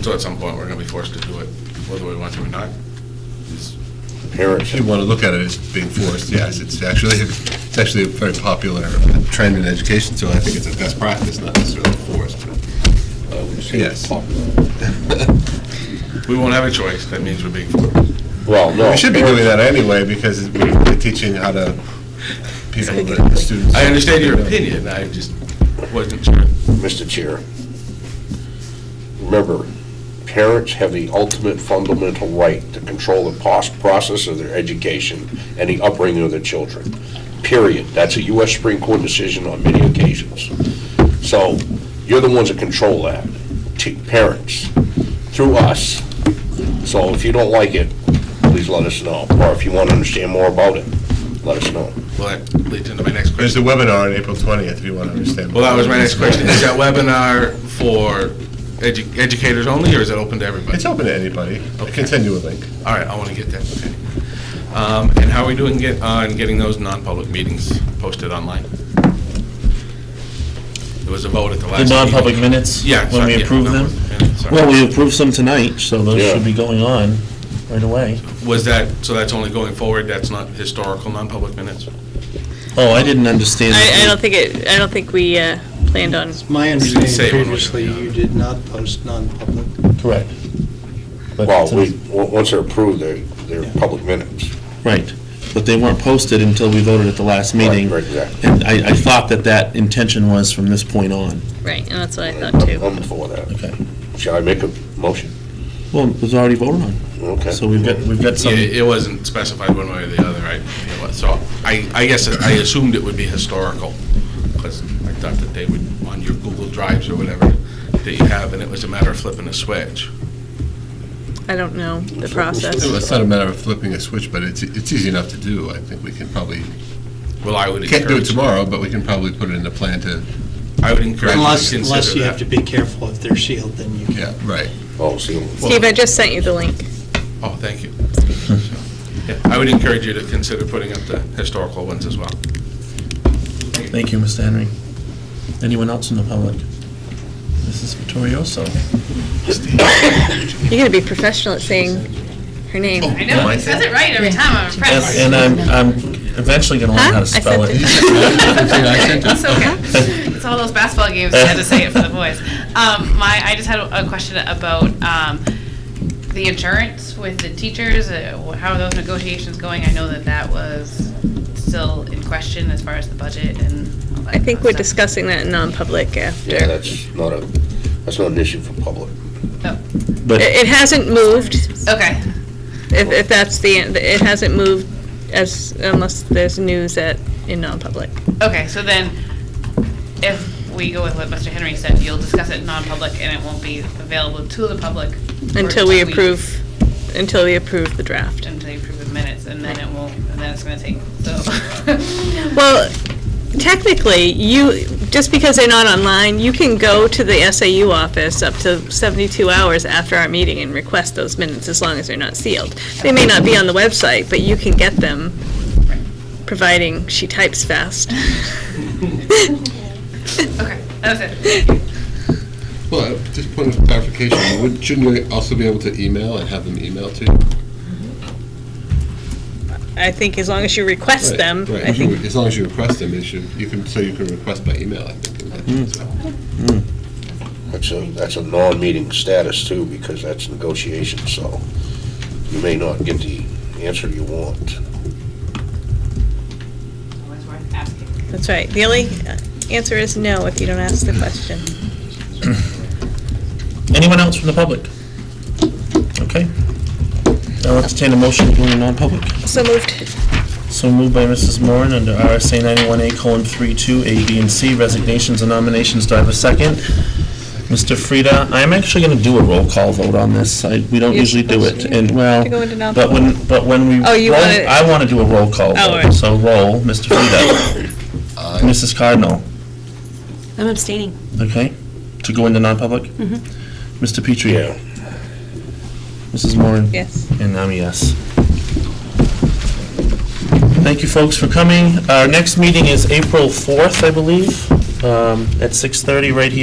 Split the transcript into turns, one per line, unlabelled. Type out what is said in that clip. So at some point, we're going to be forced to do it, whether we want to or not. It's-
Parents.
If you want to look at it as being forced, yes, it's actually, it's actually a very popular trend in education, so I think it's a best practice, not necessarily forced, but uh, yes.
We won't have a choice, that means we're being forced.
Well, no.
We should be doing that anyway, because we're teaching how to, people, the the students.
I understand your opinion, I just wasn't sure.
Mr. Chair, remember, parents have the ultimate fundamental right to control the pos- process of their education and the upbringing of their children, period. That's a U.S. Supreme Court decision on many occasions. So you're the ones that control that, t- parents, through us. So if you don't like it, please let us know, or if you want to understand more about it, let us know.
Well, that leads into my next
There's
question.
a webinar on April 20th, if you want to understand.
Well, that was my next question, is that webinar for edu- educators only, or is it open to everybody?
It's open to anybody. I can send you a link.
All right, I want to get that, okay. Um, And how are we doing get- on getting those non-public meetings posted online? There was a vote at the last
The
meeting.
non-public minutes?
Yeah.
When
sorry,
we
yeah,
approve them?
non-public minutes, sorry.
Well, we approved some tonight, so those
Yeah.
should be going on right away.
Was that, so that's only going forward, that's not historical non-public minutes?
Oh, I didn't understand.
I, I don't think it, I don't think we uh, planned on,
My
say
understanding
one way or
previously,
the other.
you did not post non-public.
Correct. But
Well, we,
since-
w- once they're approved, they're, they're public minutes.
Right, but they weren't posted until we voted at the last meeting.
Right, right, exactly.
And I, I thought that that intention was from this point on.
right, and that's what I thought too.
I'm for that.
Okay.
Shall I make a motion?
Well, it was already voted on,
Okay.
so we've got, we've got
Yeah,
some,
It wasn't specified one way or the other, right? It was- So I, I guess I assumed it would be historical, because I thought that they would, on your Google Drives or whatever that you have, and it was a matter of flipping a switch.
I don't know the process.
It's not a matter of flipping a switch, but it's, it's easy enough to do. I think we can probably,
Well, I would
can't do it
encourage,
tomorrow, but we can probably put it in a plan to,
I would encourage you
Unless,
to
unless
consider
you have
that.
to be careful if they're sealed, then you can.
yeah, right.
Oh, see,
Steve, I just sent you the link.
Oh, thank you. So, yeah, I would encourage you to consider putting up the historical ones as well.
thank you, Mr. Henry. Anyone else in the public? Mrs. Vittorioso.
You gotta be professional at saying her name.
I know, he says it right every time, I'm impressed.
And uh, and I'm, I'm eventually gonna learn how to
Huh? I
spell
said
it.
It's okay. It's all those basketball games, I had to say it for the boys. Um, my, I just had a a question about, um, the insurance with the teachers, uh, wh- how are those negotiations going? I know that that was still in question as far as the budget and all that
I think
fun
we're
stuff.
discussing that in non-public after.
yeah, that's not a, that's not an issue for public.
But
It it hasn't moved,
Okay,
if, if that's the, it hasn't moved as, unless there's news at, in non-public.
okay, so then if we go with what Mr. Henry said, you'll discuss it in non-public and it won't be available to the public. for
Until we
two weeks.
approve, until we approve the draft.
until you approve the minutes, and then it will, and then it's gonna take, so.
Well, technically, you, just because they're not online, you can go to the SAU office up to 72 hours after our meeting and request those minutes as long as they're not sealed. They may not be on the website, but you can get them, providing she types fast.
Okay, that was it.
Well, uh, just point of clarification, would- shouldn't we also be able to email and have them email to you?
I think as long as you request
Right,
them,
right.
I think,
As long as you request them, it should, you can, so you can request by email, I think. and that
Mm.
as well.
That's a, that's a non-meeting status too, because that's negotiation, so you may not get the answer you want.
Always worth asking.
that's right. The only uh, answer is no if you don't ask the question.
anyone else from the public? Okay. I'll entertain a motion to go into non-public.
So moved.
So moved by Mrs. Moran under RSA 91A colon 32, A, B, and C, resignations and nominations. Do I have a second? Mr. Frida, I'm actually going to do a roll call vote on this. I- We don't
You're
usually do
supposed
it,
to.
and well,
To go into
but when, but when we.
Oh, you
roll-
wanna-
I want to do a roll call
Oh, all
vote.
right.
So roll, Mr. Frida. Mrs. Cardinal,
I'm abstaining.
okay? To go into non-public? Mr. Petrie?
Yeah.
Mrs. Moran?
Mm-hmm. Yes.
And I'm a yes. Thank you, folks, for coming. Our next meeting is April 4th, I believe, um, at 6:30 right here.